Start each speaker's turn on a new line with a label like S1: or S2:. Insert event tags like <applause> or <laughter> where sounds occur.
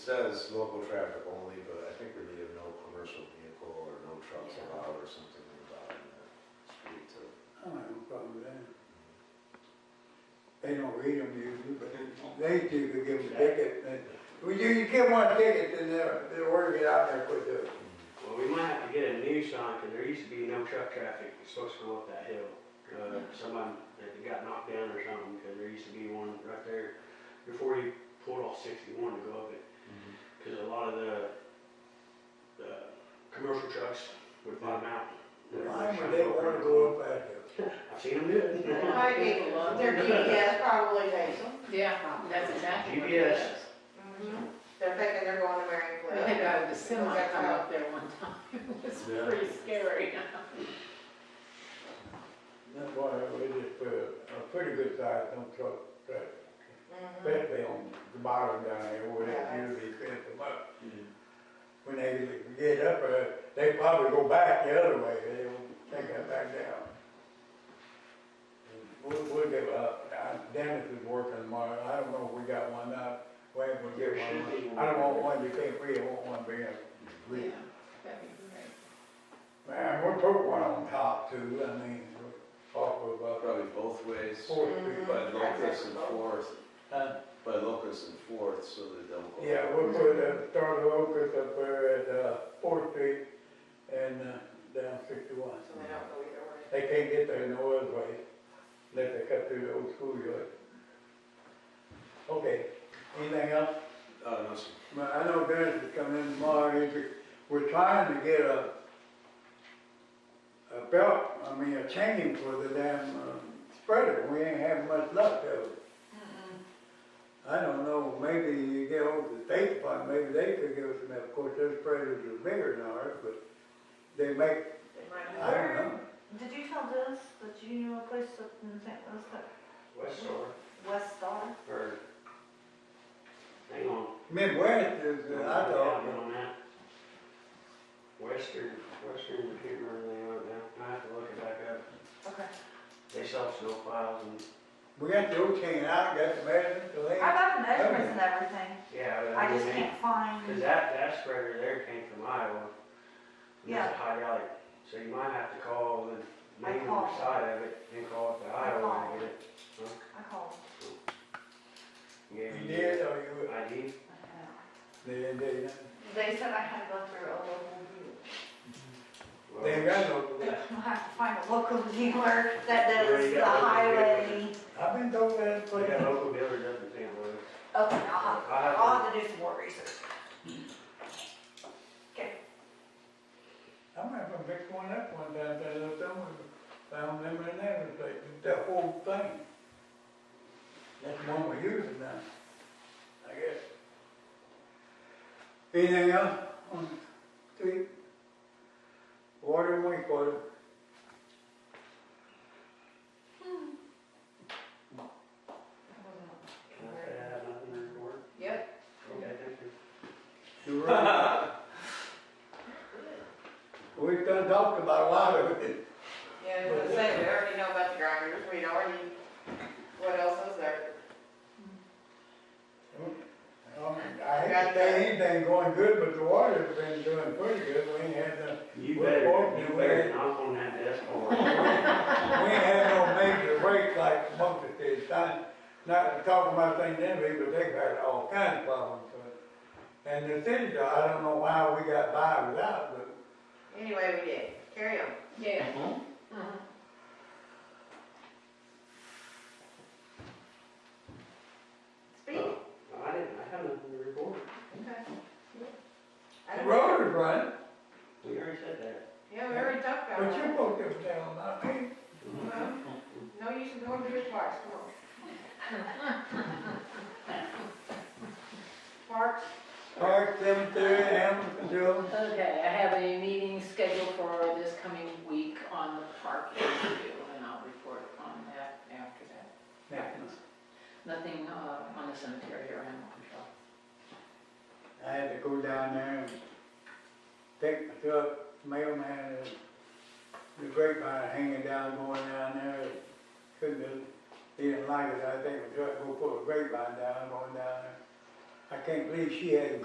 S1: Says local traffic only, but I think we need a no commercial vehicle or no trucks
S2: Yeah.
S1: allowed or something like that in the street too.
S3: I don't have a problem with that. They don't read them usually, but they do, they give them a ticket. and- Well, you, you give one ticket, then they're, they're ordered to get out there quick, too.
S4: Well, we might have to get a new sign, because there used to be no truck traffic, It's supposed to go up that hill. Uh, somebody that got knocked down or something, because there used to be one right there before you pulled off sixty-one to go up it. Because a lot of the, the commercial trucks would bottom out.
S3: Why would they wanna go up that hill?
S4: I've seen them do it.
S2: Might be, their GPS probably takes them.
S5: Yeah, <laughs> that's exactly what it
S4: GPS.
S5: is.
S6: Mm-hmm.
S2: They're thinking they're going to Mary
S5: We
S2: Cliff.
S5: had a guy with a semi
S2: They're
S5: come
S2: gonna-
S5: up there one time. <laughs> It was
S1: Yeah.
S5: pretty scary.
S3: That's why we just put a a pretty good size, no truck, truck,
S2: Mhm.
S3: especially on the bottom down there where they usually clean them up.
S1: Mm-hmm.
S3: When they get up, uh, they probably go back the other way, they don't take that back down. We'll, we'll give up, Uh, Dennis is working tomorrow, I don't know if we got one up, wait, we'll get
S4: There should be
S3: one.
S4: one.
S3: I don't want one you can't read, I want one big. read.
S5: Yeah, that'd be great.
S3: Man, we'll put one on top too, I mean, off of, uh,
S1: Probably both ways,
S3: Fourth
S4: Mm-hmm.
S2: Mhm.
S3: Street.
S1: by Locust and Fourth,
S3: Huh?
S1: by Locust and Fourth, so they don't go.
S3: Yeah, we'll put, uh, start the locust up there at, uh, Fourth Street and, uh, down sixty-one.
S2: So they don't go either way.
S3: They can't get there no other way, unless they cut through the old schoolyard. Okay, anything else?
S1: Uh, no, sir.
S3: Well, I know Dennis is coming in tomorrow, he's, we're trying to get a, a belt, I mean, a chain for the damn um, spreader, we ain't having much luck though. I don't know, maybe you get over the state department, maybe they could give us, enough. of course, their spreaders are bigger than ours, but they make,
S2: They might
S3: I
S2: not.
S3: don't know.
S6: Did you tell Dennis that you knew a place up in St. Louis, that
S4: West Star,
S6: West Star?
S4: or, hang on.
S3: Midwest is, uh, I
S4: Yeah,
S3: thought,
S4: on that. Western, Western, I can't remember the name of it now, I have to look it back up.
S6: Okay.
S4: They sell snow plows and,
S3: we got the old chain out, got the measurements, the
S6: I
S3: length.
S6: got the measurements and everything,
S4: yeah. but
S6: I
S4: mean,
S6: just
S4: they-
S6: can't
S4: Cause
S6: find,
S4: that, that spreader there came from Iowa. And that's
S6: Yeah.
S4: hydraulic, so you might have to call the
S6: I
S4: main
S6: called.
S4: side of it and call it the
S6: I
S4: Iowa
S6: called.
S4: and get it.
S6: I called.
S4: Gave
S3: You
S4: you
S3: did,
S4: your
S3: or you,
S4: ID,
S3: they, they,
S6: They said I had to go through a local dealer.
S4: well,
S3: they ain't got no.
S6: <laughs> I have to find a local dealer that
S4: Yeah,
S6: does
S4: you
S6: the
S4: got local
S6: highway.
S3: I've been told that
S4: They
S3: place.
S4: got local dealers up in St. Louis.
S6: Okay, I'll have,
S4: I have
S6: I'll have to do some more research. Okay,
S3: I remember picked one up one time, that little someone found them in there, it's like, that whole thing. That's the one we're using now, I guess. Anything else on the street? Water and wastewater?
S4: Can I say I have nothing to report?
S5: Yep.
S4: Okay, thank you.
S3: You right. We've done talked about a lot of it.
S2: Yeah, I was gonna say, we already know about the grinders, we already, what else is there?
S3: Um, I ain't say anything going good, but the water's been doing pretty good, we ain't had no
S4: You
S3: Well,
S4: better,
S3: Bob,
S4: you
S3: you
S4: better
S3: better-
S4: knock on that desk door.
S3: We ain't had no major break like Memphis did, not, not talking about St. Genevieve, but they've had all kinds of problems. with it. And the city, I don't know why we got by without, but
S2: Anyway, we did, carry on.
S5: Yeah. Uh-huh.
S2: Speak.
S4: I didn't, I have nothing to report.
S2: Okay. I
S3: the
S2: don't-
S3: road is running,
S4: We already said that.
S2: Yeah, we already talked about
S3: but you
S2: that.
S3: both them down, I mean,
S2: Well, No use in going through the parks, come on. Parks,
S3: Park Cemetery, Hamilton, Jones.
S5: Okay, I have a meeting scheduled for this coming week on the park issue, and I'll report on that after that. happens. Nothing uh, on the cemetery or animal control.
S3: I had to go down there and pick my truck, mailman, and the grapevine hanging down, going down there. Couldn't, do- he didn't like it, I think the truck go pull a grapevine down, going down there. I can't believe she had